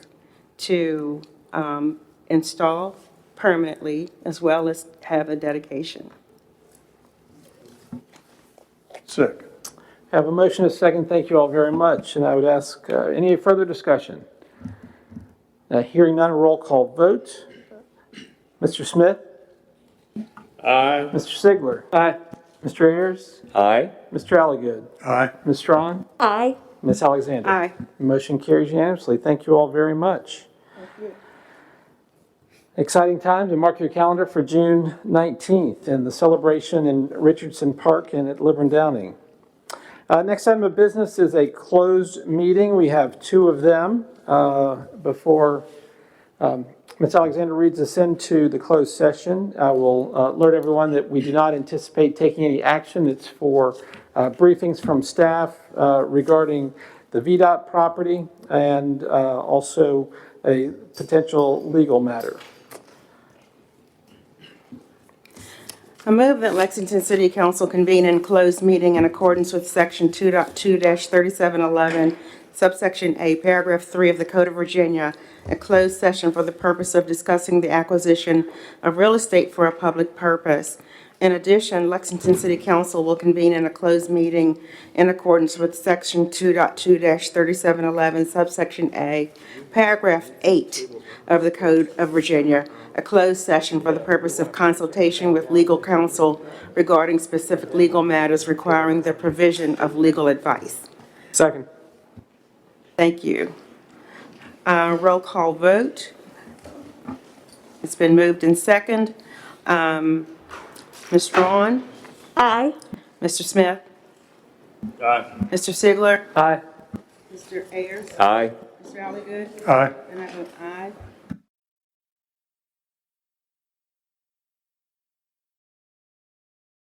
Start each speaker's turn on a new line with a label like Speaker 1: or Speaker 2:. Speaker 1: to um, install permanently as well as have a dedication.
Speaker 2: Second.
Speaker 3: Have a motion, and a second. Thank you all very much. And I would ask, uh, any further discussion? Uh, Hearing none, roll call vote. Mr. Smith?
Speaker 4: Aye.
Speaker 3: Mr. Sigler? Aye. Mr. Ayers?
Speaker 4: Aye.
Speaker 3: Mr. Alligood?
Speaker 2: Aye.
Speaker 3: Ms. Strong?
Speaker 5: Aye.
Speaker 3: Ms. Alexander?
Speaker 1: Aye.
Speaker 3: Motion carries unanimously. Thank you all very much. Exciting times, and mark your calendar for June 19th and the celebration in Richardson Park and at Liburn Downing. Uh, Next item of business is a closed meeting. We have two of them uh, before um, Ms. Alexander reads us into the closed session. I will uh, alert everyone that we do not anticipate taking any action. It's for uh, briefings from staff uh, regarding the VDOT property and uh, also a potential legal matter.
Speaker 1: I move that Lexington City Council convene in closed meeting in accordance with Section 2.2-3711, subsection A, paragraph 3 of the Code of Virginia, a closed session for the purpose of discussing the acquisition of real estate for a public purpose. In addition, Lexington City Council will convene in a closed meeting in accordance with Section 2.2-3711, subsection A, paragraph 8 of the Code of Virginia, a closed session for the purpose of consultation with legal counsel regarding specific legal matters requiring the provision of legal advice.
Speaker 3: Second.
Speaker 1: Thank you. Uh, Roll call vote. It's been moved in second. Um, Ms. Vaughn,
Speaker 5: Aye.
Speaker 1: Mr. Smith,
Speaker 4: Aye.
Speaker 1: Mr. Sigler.
Speaker 3: Aye.
Speaker 1: Mr. Ayers.
Speaker 4: Aye.
Speaker 1: Mr. Alligood.
Speaker 2: Aye.
Speaker 1: And I vote aye.